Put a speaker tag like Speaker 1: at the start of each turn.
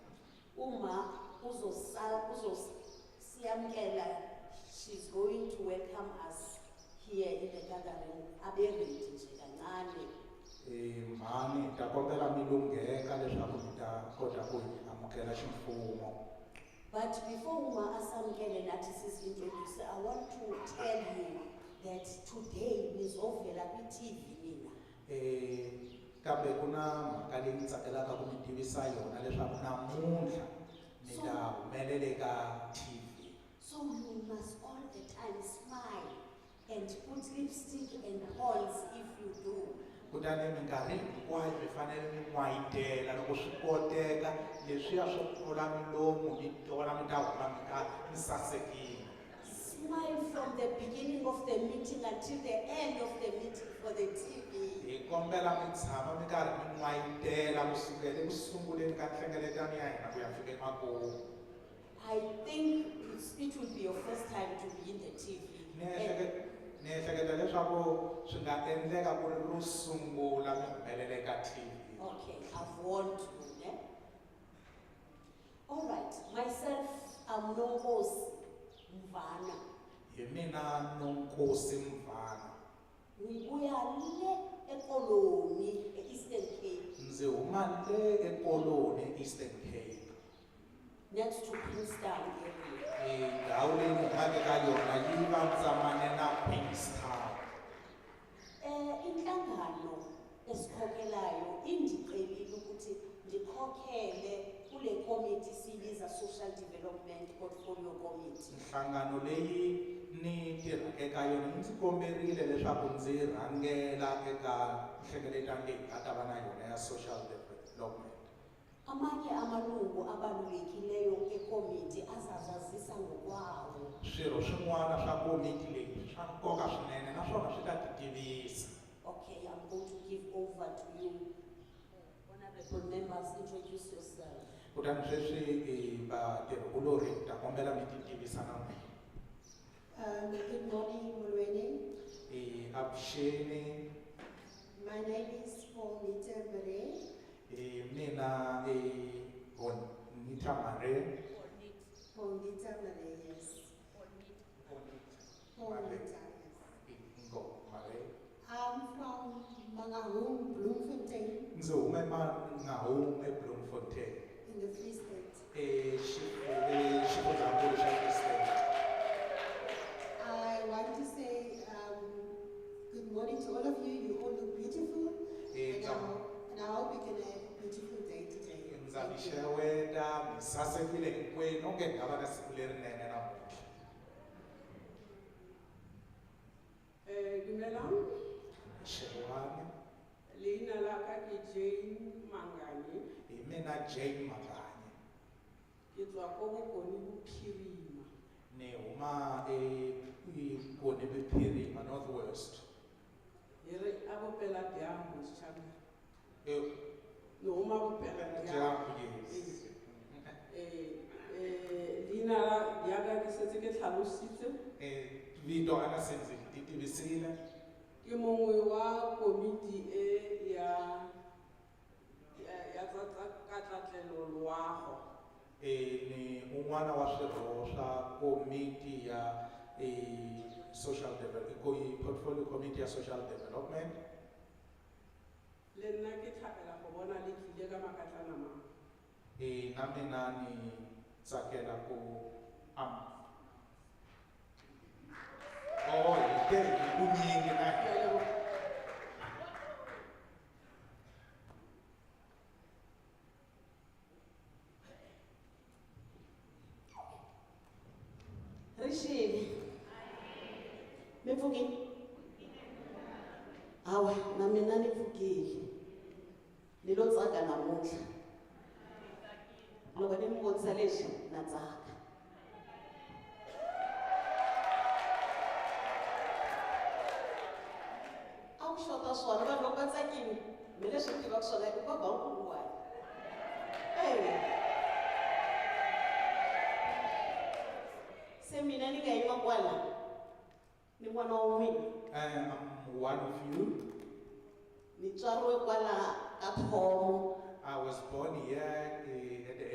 Speaker 1: uma uzosal- uzosiyamkela she's going to welcome us here in the gathering abe ready nje kancane
Speaker 2: Eh, mhani ta kombela mi lungheka leswaku mi ta kota e, ku hi amukela ximfumo
Speaker 1: but before uma asamkele nathi sizintroduce i want to tell you that today nizovela kwi-tv mina
Speaker 2: Eh, kambe ku na mhaka leyi ni tsakelaka ku mi tivisa yona leswaku namuntlha mi ta humelela eka tv
Speaker 1: So you must all the time smile and put lipstick and pearls if you do.
Speaker 2: kutani minkarhi hinkwayo mi fanele mi n'wayitela loko swi koteka leswiya swo pfula milomu mi tona mi ta huma mi ka mi sasekile
Speaker 1: Smile from the beginning of the meeting until the end of the meeting for the TV.
Speaker 2: hi kombela mi tshama mi karhi mi n'wayitela kusukela eku sunguleni ka nhlengeletano ya hina ku ya fika emakumu
Speaker 1: I think it's, it will be your first time to be in the TV.
Speaker 2: ni
Speaker 1: And,
Speaker 2: ehleke- ni ehleketa leswaku swi nga endleka ku ri ro sungula mi humelele ka tv
Speaker 1: okay, I've warned you. Ne? All right, myself, I'm Nombos Mvana.
Speaker 2: hi mina nonkosi mvana
Speaker 1: Nibuya le ekoloni, Eastern Cape.
Speaker 2: ndzi huma le ekoloni eastern cape
Speaker 1: next to Queenstown area.
Speaker 2: Eh, ndhawu leyi ni humaka ka yona yi vandzamange na queenstown
Speaker 1: Eh inhlangano esikhokelayo indicelile ukuthi ndikhokhele kule committee siyibiza social development portfolio committee.
Speaker 2: nhlangano leyi ni tirhaka eka yona yi ndzi komberile leswaku ndzi rhangela eka nhlengeletano leyi nga ta va na yona ya social development
Speaker 1: Amanye amalungu abalulekileyo ekomiti azazazisa ngokwawo.
Speaker 2: swirho swin'wana swa komiti leyi swa nkoka swinene naswona swi ta titivisa
Speaker 1: Okay, I'm going to give over to you. Honorable members, introduce yourself.
Speaker 2: kutani sweswi eh, vatirhikulori hi ta kombela mi titivisa na n'wina
Speaker 3: Um, good morning, Mulweni.
Speaker 2: Eh, avuxeni
Speaker 3: My name is Paul Nitemere.
Speaker 2: eh, mina eh, Hon- Nita Mare
Speaker 3: Paul Nitemere, yes. Paul
Speaker 2: Mare.
Speaker 3: Nita,
Speaker 2: eh, Ngo e, Mare
Speaker 3: yes. I'm Um, from Mangaung, Bloemfontein,
Speaker 2: ndzi hume mangahume bloemfontein
Speaker 3: in the Free State.
Speaker 2: eh, xi- eh, xifundzankulu xa president
Speaker 3: I want to say um, good morning to all of you. You all look beautiful.
Speaker 2: Eh,
Speaker 3: And I, and I hope you can have a beautiful day today.
Speaker 2: ndza mi
Speaker 3: Thank you.
Speaker 2: xeweta mi sasekile hinkwenu onge hi nga va na siku lerinene namuntlha
Speaker 4: Eh, dumelang
Speaker 2: xewani
Speaker 4: leina la ka ke jane mangane
Speaker 2: hi mina jane makanye
Speaker 4: ke tswa ko bokone bophirima
Speaker 2: ni huma ekoni viphirima north west
Speaker 4: e re a bopela bjang mosetšhaba
Speaker 2: Eh,
Speaker 4: ne oma bopela bjang
Speaker 2: dyambu, yes.
Speaker 4: Eh, eh, leina la- ya ka ke setse ke tlhalositse
Speaker 2: Eh, vito a na se ndzi ti tivisile
Speaker 4: ke mongwe wa komiti e ya ya- ya tsa tsa- katlatlelo loago
Speaker 2: Eh, ni un'wana wa swirho swa komiti ya eh, social develop- ko- eh, portfolio committee ya social development
Speaker 4: le nna ke tlhabela go bona le tlile ka makatlana mang
Speaker 2: Eh, na mina ni tsakela ku am oh hi te hi vunyingi na
Speaker 4: Ke a leboga.
Speaker 1: Rishini. Mepfukile? Hawa, na mina ni pfukile. Ni lo tsaka namuntlha. Loko ni mi vonisa leswi na tsaka. A ku xota swona vanhu loko va tsakile mi leswi mi tivaka swona i ku va bankuluwani. Ewe. se mina ni nga yima kwala ni n'wana wa n'wina
Speaker 2: I am one of you.
Speaker 1: ni tswariwe kwala ka thomo
Speaker 2: I was born here eh, in